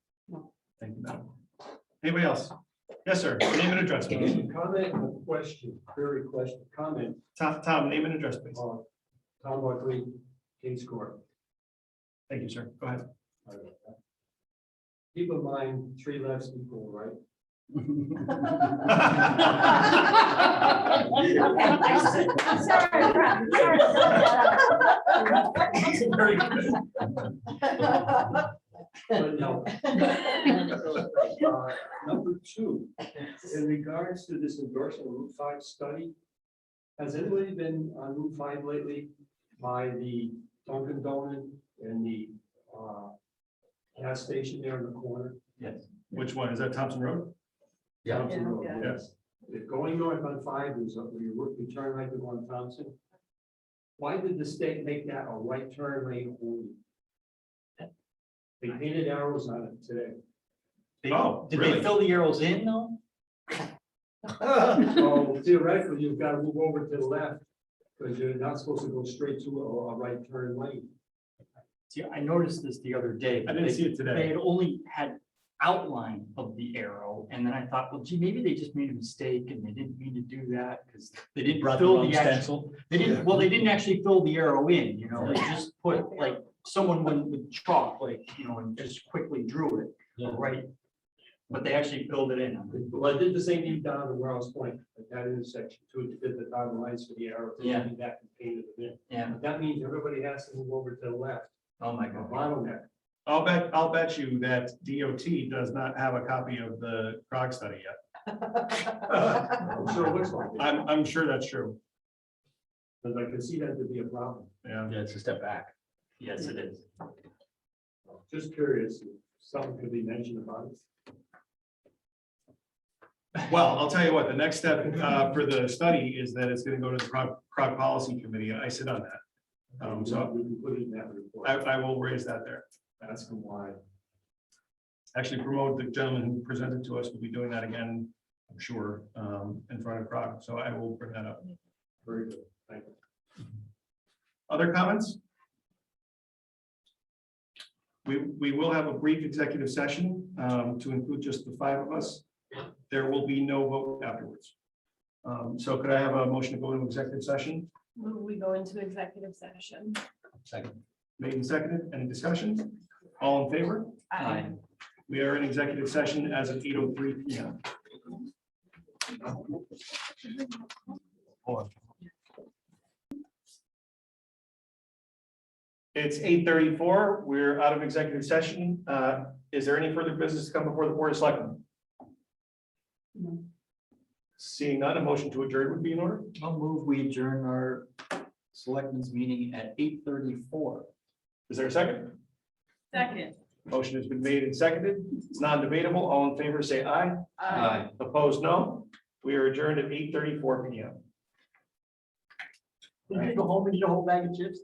Anybody else? Yes, sir. Name and address, please. Comment or question, query question, comment, Tom, Tom, name and address, please. on Tom Buckley, King's Court. Thank you, sir. Go ahead. Keep in mind, three lefts equal, right? Very good. But no. Uh, Number two, in regards to this endorsement of Route Five study, has anybody been on Route Five lately by the Dunkin' Donut and the uh, gas station there in the corner? Which one? Is that Thompson Road? Thompson Road, Yeah. Yes. If Going north on five is up where you work, you turn right to go on Thompson. Why did the state make that a right turn lane only? They painted arrows on it today. They- Oh, Did really? they fill the arrows in though? So theoretically, you've got to move over to the left because you're not supposed to go straight to a, a right turn lane. See, I noticed this the other day. I didn't They- see it They today. had only had outline of the arrow and then I thought, well, gee, maybe they just made a mistake and they didn't mean to do that because they didn't Brought the fill wrong the actual. stencil. They didn't, well, they didn't actually fill the arrow in, you know, they just put like, someone went with chalk, like, you know, and just quickly drew it, Yeah. right? But they actually filled it in. Well, I did the same thing down to where I was pointing, at that intersection, too, did the dotted lines for the arrow. they Yeah. came Back and painted it in. Yeah, But That means everybody has to move over to the left, oh my a God. bottleneck. I'll bet, I'll bet you that DOT does not have a copy of the CROG study yet. I'm sure it looks like it, I'm, I'm sure that's true. but I can see that to be a problem. Yeah. Yeah, it's a step back. Yes, it is. Just curious, if something could be mentioned about it. Well, I'll tell you what, the next step uh, for the study is that it's gonna go to the CROG, CROG Policy Committee, and I sit on that. Um, so We can put it in that report. I, I will raise that there. Ask them why. Actually promote the gentleman who presented to us, will be doing that again, I'm sure, um, in front of CROG, so I will bring that up. Very good, thank you. Other comments? We, we will have a brief executive session um, to include just the five of us. There will be no vote afterwards. Um, So could I have a motion to go into executive session? Will we go into executive session? Second. Made and seconded, any discussion? All in favor? I- We are in executive session as of eight oh three P M. It's eight thirty-four, we're out of executive session. Uh, is there any further business to come before the board of selectmen? No. Seeing none, a motion to adjourn would be in order. I'll move, we adjourn our selectmen's meeting at eight thirty-four. Is there a second? Second. Motion has been made and seconded. It's non-debatable. All in favor, say aye. I- Opposed, no. We are adjourned at eight thirty-four P M. You go home and eat a whole bag of chips?